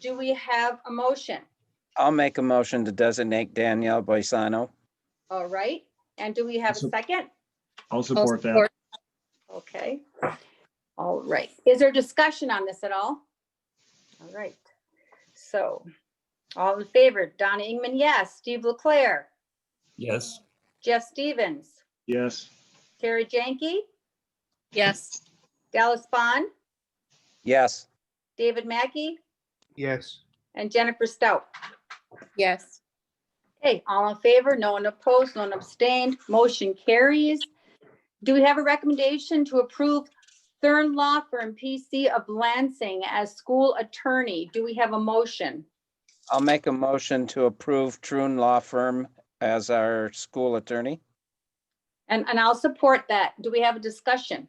Do we have a motion? I'll make a motion to designate Danielle Boisano. All right, and do we have a So- second? I'll support that. Okay. All right. Is there discussion on this at all? All right. So, all in favor, Donna Ingman, yes. Steve Leclair, Yes. Jeff Stevens, Yes, Terry Jenke, Yes. Dallas Bond, Yes, David Mackey, yes, and Jennifer Stout. Yes. Okay, all in favor, no one opposed, no one abstained, motion carries. Do we have a recommendation to approve Thurn Law Firm PC of Lansing as school attorney? Do we have a motion? I'll make a motion to approve Trune Law Firm as our school attorney. And, and I'll support that. Do we have a discussion?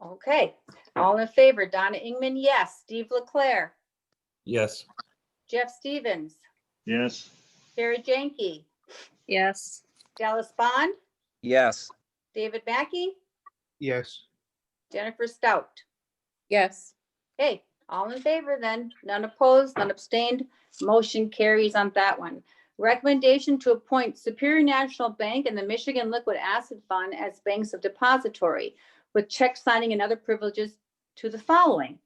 Okay, all in favor, Donna Ingman, yes. Steve Leclair, Yes. Jeff Stevens, yes, Jerry Jenke, Yes. Dallas Bond, Yes, David Mackey, yes, Jennifer Stout. Yes. Okay, all in favor then, none opposed, none abstained, motion carries on that one. Recommendation to appoint Superior National Bank and the Michigan Liquid Asset Fund as banks of depository with check signing and other privileges to the following.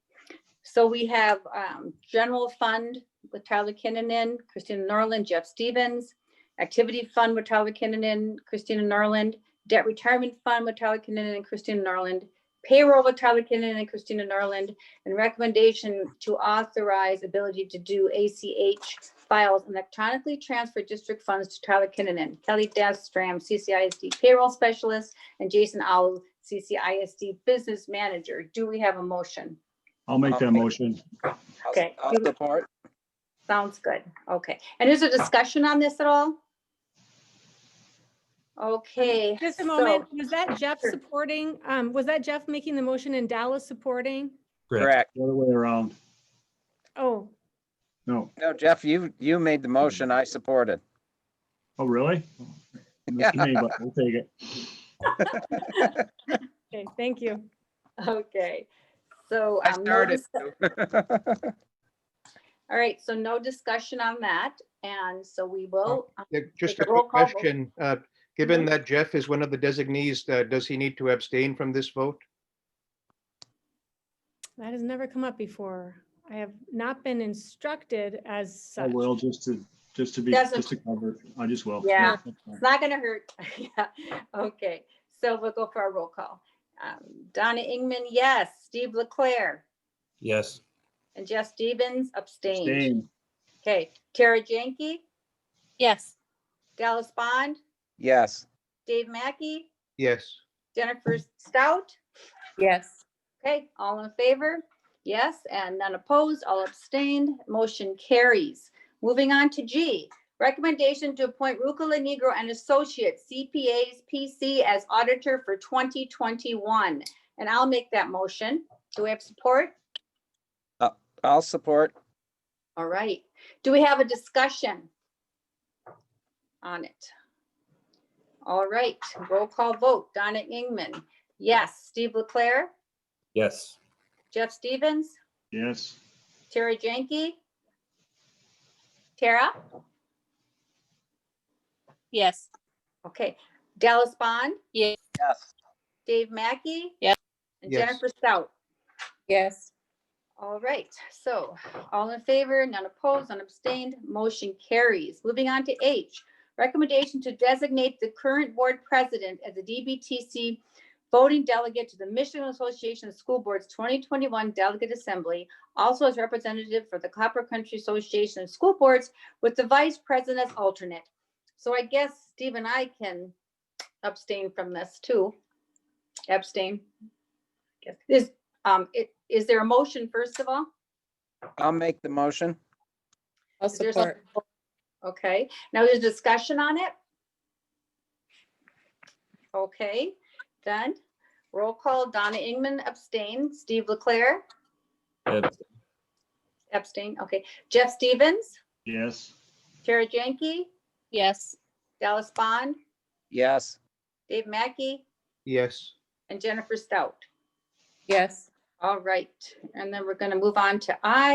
So we have um, General Fund with Tyler Kinnanen, Christina Norland, Jeff Stevens, Activity Fund with Tyler Kinnanen, Christina Norland, Debt Retirement Fund with Tyler Kinnanen and Christina Norland, Payroll with Tyler Kinnanen and Christina Norland, and recommendation to authorize ability to do ACH files and electronically transfer district funds to Tyler Kinnanen, Kelly Dastram, CCISD payroll specialist, and Jason Owl, CCISD business manager. Do we have a motion? I'll make that motion. I'll- Okay. I'll support. Sounds good. Okay. And is there discussion on this at all? Okay. Um, Just a so- moment, was that Jeff Sure. supporting, um, was that Jeff making the motion and Dallas supporting? Correct. The other way around. Oh, No. No, Jeff, you, you made the motion. I supported. Oh, really? Yeah. Missed me, but We'll take it. okay, thank you. Okay. So. I um, no started. dis- All right. So no discussion on that. And so we Oh. will. um, Yeah, just Take a a roll quick call vote. question. uh, Given that Jeff is one of the designees, uh, does he need to abstain from this vote? That has never come up before. I have not been instructed as I such. will, just to, just to be, Doesn't- just to cover. I just will. Yeah. that's fine. It's not gonna hurt. Yeah, okay. So we'll go for our roll call. Um, Donna Ingman, yes. Steve Leclair Yes. and Jeff Stevens abstained. Abstain. Okay, Tara Jenke, Yes. Dallas Bond, Yes, Dave Mackey, Yes, Jennifer Stout. Yes. Okay, all in favor? Yes, and none opposed, all abstained, motion carries. Moving on to G, recommendation to appoint Rukula Negro and Associates CPAs PC as auditor for 2021. And I'll make that motion. Do we have support? I'll support. All right. Do we have a discussion on it? All right, roll call vote. Donna Ingman, yes. Steve Leclair, Yes. Jeff Stevens? Yes, Tara Jenke? Tara? Yes. Okay. Dallas Bond? Yes. Dave Mackey? Yes. And Yes. Jennifer Stout? Yes. All right, so all in favor, none opposed, none abstained, motion carries. Moving on to H, recommendation to designate the current board president as the DBTC voting delegate to the Michigan Association of School Boards 2021 Delegate Assembly, also as representative for the Copper Country Association of School Boards with the vice president as alternate. So I guess Steve and I can abstain from this too. Abstain. Guess- Is, um, it, is there a motion, first of all? I'll make the motion. I'll Is there some- support. Okay, now there's discussion on it? Okay, done. Roll call, Donna Ingman abstain, Steve Leclair Abs- abstain, okay. Jeff Stevens, yes, Tara Jenke, Yes. Dallas Bond, Yes, Dave Mackey, yes, and Jennifer Stout. Yes. All right, and then we're going to move on to I,